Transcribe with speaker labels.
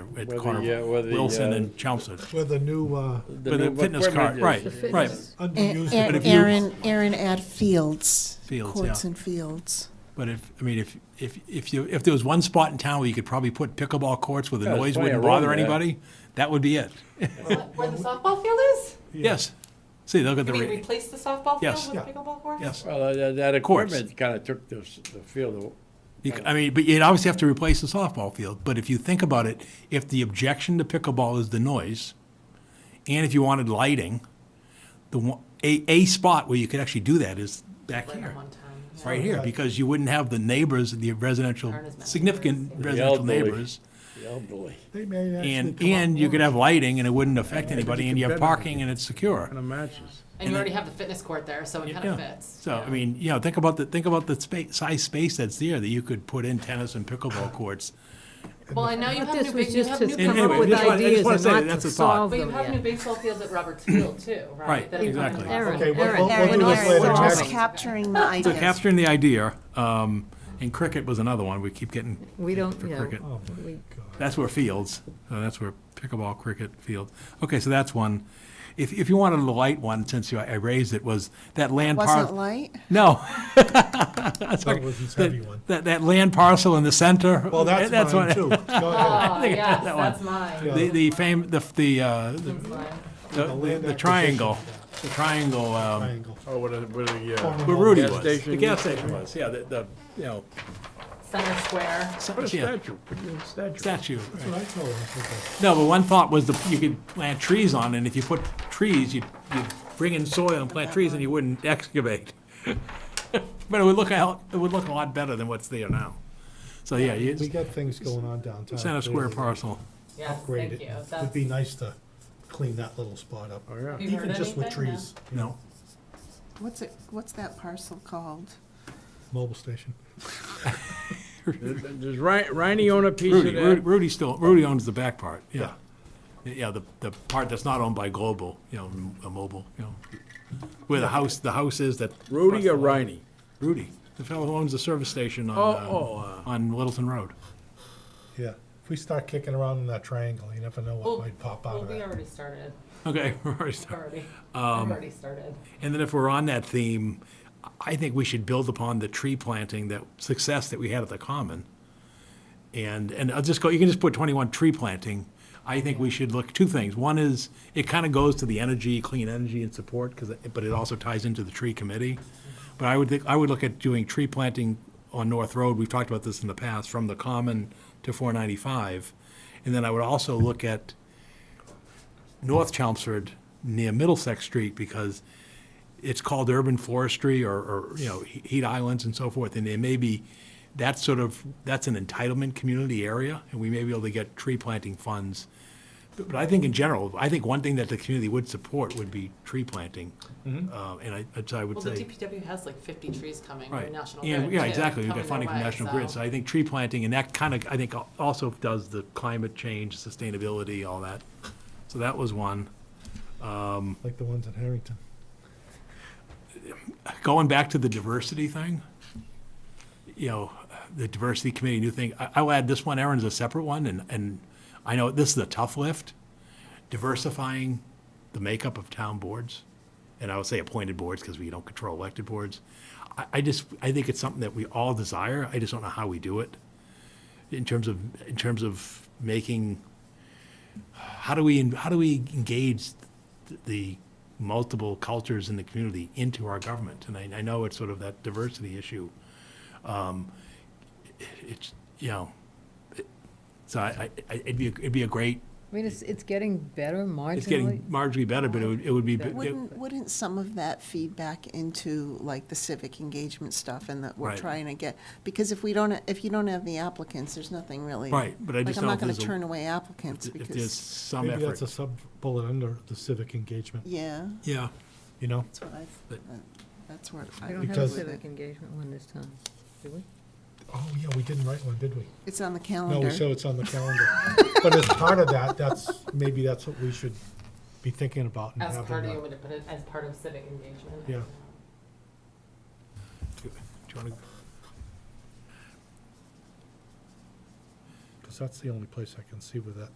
Speaker 1: at
Speaker 2: Whether,
Speaker 1: Carnival.
Speaker 2: yeah, whether,
Speaker 1: Wilson
Speaker 2: yeah.
Speaker 1: and Chelmsford.
Speaker 3: with a new, uh,
Speaker 1: But the
Speaker 2: new
Speaker 1: fitness card,
Speaker 2: equipment
Speaker 1: right,
Speaker 2: is-
Speaker 1: right.
Speaker 3: underused.
Speaker 1: But if
Speaker 4: And
Speaker 1: you-
Speaker 4: Aaron, Aaron at fields.
Speaker 1: Fields,
Speaker 4: Courts
Speaker 1: yeah.
Speaker 4: and fields.
Speaker 1: But if, I mean, if, if, if you, if there was one spot in town where you could probably put pickleball courts where the
Speaker 2: Yeah, there's
Speaker 1: noise
Speaker 2: plenty
Speaker 1: wouldn't
Speaker 2: of room
Speaker 1: bother
Speaker 2: there.
Speaker 1: anybody, that would be it.
Speaker 5: Where the softball field is?
Speaker 1: Yes. See, they'll get the,
Speaker 5: You mean
Speaker 1: ra-
Speaker 5: replace the softball
Speaker 1: Yes.
Speaker 5: field with
Speaker 3: Yeah.
Speaker 5: pickleball court?
Speaker 1: yes.
Speaker 2: Well, uh, that, that
Speaker 1: course.
Speaker 2: equipment kind of took the, s- the field.
Speaker 1: You c- I mean, but you'd obviously have to replace the softball field, but if you think about it, if the objection to pickleball is the noise, and if you wanted lighting, the one, a, a spot where you could actually do that is back here,
Speaker 5: One time. yeah.
Speaker 1: right here, because you wouldn't have the neighbors, the residential,
Speaker 5: Aren't as many.
Speaker 1: significant residential
Speaker 2: elderly.
Speaker 1: neighbors.
Speaker 2: The elderly.
Speaker 3: They may actually
Speaker 1: And,
Speaker 3: come up
Speaker 1: and you
Speaker 3: with
Speaker 1: could have lighting and it wouldn't affect
Speaker 2: you
Speaker 1: anybody, and
Speaker 2: could
Speaker 1: you have
Speaker 2: bet on it.
Speaker 1: parking and it's secure.
Speaker 2: of matches.
Speaker 5: And you already have the fitness court there, so it kind
Speaker 1: Yeah.
Speaker 5: of fits.
Speaker 1: So, I
Speaker 5: yeah.
Speaker 1: mean, you know, think about the, think about the space, size space that's there that you could put in tennis and pickleball courts.
Speaker 5: Well, and now you have
Speaker 6: This
Speaker 5: new,
Speaker 6: was
Speaker 5: big- you
Speaker 6: just
Speaker 5: have
Speaker 6: to
Speaker 5: new
Speaker 6: come
Speaker 1: And
Speaker 6: up
Speaker 1: anyway,
Speaker 6: with
Speaker 1: just wanna- I just
Speaker 6: ideas
Speaker 1: wanna
Speaker 6: and
Speaker 1: say
Speaker 6: not
Speaker 1: that that's
Speaker 6: to
Speaker 1: a thought.
Speaker 6: solve
Speaker 5: But you
Speaker 6: them
Speaker 5: have new
Speaker 6: yet.
Speaker 5: baseball fields at Roberts Field too, right?
Speaker 1: Right,
Speaker 5: That are
Speaker 1: exactly.
Speaker 5: coming
Speaker 6: Aaron,
Speaker 5: up.
Speaker 3: Okay, we'll-
Speaker 6: Aaron,
Speaker 3: we'll- we'll do
Speaker 6: Aaron,
Speaker 3: this later,
Speaker 6: Aaron.
Speaker 4: We're
Speaker 3: Jack.
Speaker 4: just capturing the
Speaker 1: So
Speaker 4: ideas.
Speaker 1: capturing the idea, um, and cricket was another one, we keep getting.
Speaker 6: We don't,
Speaker 1: for
Speaker 6: yeah.
Speaker 1: cricket.
Speaker 3: Oh, my
Speaker 6: We-
Speaker 3: God.
Speaker 1: That's where fields, uh, that's where pickleball, cricket, field. Okay, so that's one. If, if you wanted a light one, since you, I raised it, was that land parcel.
Speaker 4: Wasn't light?
Speaker 1: No.
Speaker 3: That was his heavy one.
Speaker 1: That, that land parcel in the center.
Speaker 3: Well, that's
Speaker 1: what-
Speaker 3: mine too. Go ahead.
Speaker 5: Oh, yes,
Speaker 1: that one.
Speaker 5: that's mine.
Speaker 3: Yeah.
Speaker 1: The, the fame, the, the, uh, the-
Speaker 5: That's mine.
Speaker 1: the, the triangle, the triangle, um,
Speaker 3: Triangle.
Speaker 2: Oh, what a, what a, yeah.
Speaker 1: where Rudy
Speaker 2: Gas
Speaker 1: was, the
Speaker 2: station.
Speaker 1: gas station was, yeah, the, the, you know,
Speaker 5: Center Square.
Speaker 1: some-
Speaker 2: What a
Speaker 1: yeah,
Speaker 2: statue, put it in a statue.
Speaker 1: statue.
Speaker 3: That's
Speaker 1: right.
Speaker 3: what I told him. I said,
Speaker 1: No, but one thought was the, you could plant trees on, it, and if you put trees, you'd, you'd bring in soil and plant trees, and you wouldn't excavate. But it would look out, it would look a lot better than what's there now. So, yeah, you,
Speaker 3: We got things going on downtown.
Speaker 1: center square
Speaker 3: clearly.
Speaker 1: parcel.
Speaker 5: Yes,
Speaker 3: Upgrade
Speaker 5: thank
Speaker 3: it.
Speaker 5: you.
Speaker 3: Would
Speaker 5: That's,
Speaker 3: be nice to clean that little spot up,
Speaker 2: Oh, yeah.
Speaker 5: You heard
Speaker 3: even just with
Speaker 5: anything? No.
Speaker 3: trees.
Speaker 1: No.
Speaker 4: What's it, what's that parcel called?
Speaker 3: Mobile station.
Speaker 2: Does does Ri- Riney own a piece of
Speaker 1: Rudy, Rudy,
Speaker 2: that?
Speaker 1: Rudy still, Rudy owns the back part, yeah. Yeah, the, the part that's not owned by Global, you know, M- uh, Mobile, you know, where the house, the house is that.
Speaker 2: Rudy or Riney?
Speaker 1: Rudy, the fellow who owns the service station on,
Speaker 2: Oh, oh,
Speaker 1: uh, on Littleton Road.
Speaker 3: Yeah. If we start kicking around in that triangle, you never know
Speaker 5: Well,
Speaker 3: what might pop out
Speaker 5: oh, well,
Speaker 3: of
Speaker 5: we
Speaker 3: that.
Speaker 5: already started,
Speaker 1: Okay, we're already starting.
Speaker 5: already.
Speaker 1: Um,
Speaker 5: Already started.
Speaker 1: and then if we're on that theme, I think we should build upon the tree planting, that success that we had at the Common. And, and I'll just go, you can just put twenty-one tree planting. I think we should look, two things. One is, it kind of goes to the energy, clean energy and support, because, but it also ties into the tree committee. But I would think, I would look at doing tree planting on North Road, we've talked about this in the past, from the Common to four ninety-five. And then I would also look at North Chelmsford near Middlesex Street, because it's called urban forestry or, or, you know, he- heat islands and so forth, and there may be, that's sort of, that's an entitlement community area, and we may be able to get tree planting funds. But but I think in general, I think one thing that the community would support would be tree planting. Uh, And I, that's I would
Speaker 5: Well,
Speaker 1: say.
Speaker 5: the DPW has like fifty trees coming
Speaker 1: Right.
Speaker 5: from National
Speaker 1: Yeah,
Speaker 5: Grid.
Speaker 1: Yeah,
Speaker 5: too,
Speaker 1: exactly. We've
Speaker 5: coming
Speaker 1: got
Speaker 5: their
Speaker 1: funding from
Speaker 5: way,
Speaker 1: National
Speaker 5: so-
Speaker 1: Grid. So I think tree planting and that kind of, I think al- also does the climate change, sustainability, all that. So that was one.
Speaker 3: Like the ones in Harrington.
Speaker 1: Going back to the diversity thing, you know, the diversity committee, new thing, I, I'll add this one, Erin's a separate one, and, and I know this is a tough lift. Diversifying the makeup of town boards, and I would say appointed boards, because we don't control elected boards. I, I just, I think it's something that we all desire, I just don't know how we do it. in terms of in terms of making how do we how do we engage th- the multiple cultures in the community into our government and I, I know it's sort of that diversity issue um, it- it's you know it- so I, I it'd be a, it'd be a great
Speaker 6: I mean, it's, it's getting better
Speaker 1: it's
Speaker 6: marginally.
Speaker 1: getting marginally better but it would, it would be it-
Speaker 4: Wouldn't, wouldn't some of that feed back into like the civic engagement stuff and that we're
Speaker 1: Right.
Speaker 4: trying to get? Because if we don't, if you don't have the applicants, there's nothing really.
Speaker 1: Right, but I just
Speaker 4: Like, I'm
Speaker 1: don't
Speaker 4: not gonna
Speaker 1: think there's a-
Speaker 4: turn away applicants
Speaker 1: if there's
Speaker 4: because,
Speaker 1: some
Speaker 3: Maybe that's
Speaker 1: effort
Speaker 3: a sub-bullet under the civic engagement,
Speaker 4: yeah,
Speaker 1: yeah
Speaker 3: you know?
Speaker 4: that's what I,
Speaker 1: But-
Speaker 4: that's where
Speaker 6: We
Speaker 4: I
Speaker 6: don't
Speaker 4: would
Speaker 6: have a
Speaker 3: Because-
Speaker 6: civic engagement one this time, do we?
Speaker 3: Oh, yeah, we didn't write one, did we?
Speaker 4: It's on the
Speaker 3: No, we
Speaker 4: calendar.
Speaker 3: show it's on the calendar. But as part of that, that's, maybe that's what we should be thinking about and
Speaker 5: As
Speaker 3: having
Speaker 5: part of, you
Speaker 3: that.
Speaker 5: want me to put it as part of civic engagement.
Speaker 3: Yeah.
Speaker 1: do you want to
Speaker 3: Because that's the only place I can see where that